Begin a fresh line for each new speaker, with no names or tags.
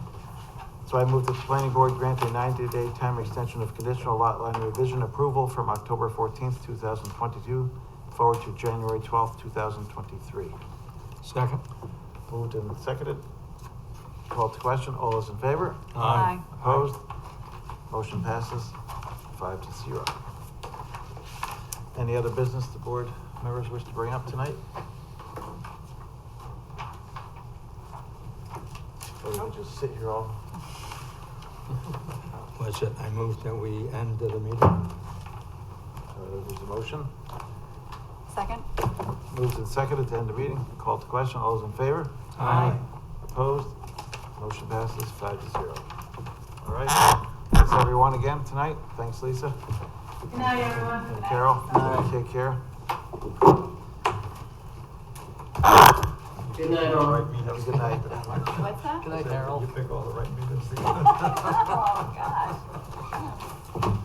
So I move that the planning board grant a ninety-day time extension of conditional lot line revision approval from October fourteenth, two thousand twenty-two forward to January twelfth, two thousand twenty-three.
Second?
Moved and seconded. Called to question, all those in favor?
Aye.
Opposed? Motion passes five to zero. Any other business the board members wish to bring up tonight? Or we could just sit here all?
Was it, I move that we end the meeting?
uh, There's a motion,
Second?
moves and seconded to end the meeting, Call to question, all those in favor?
Aye.
Opposed? Motion passes five to zero. All right, thanks everyone again tonight, thanks Lisa
Good night, everyone.
and Carol, take care.
Good night, all.
Have a good night.
What's that?
Good night, Harold.
Oh, God.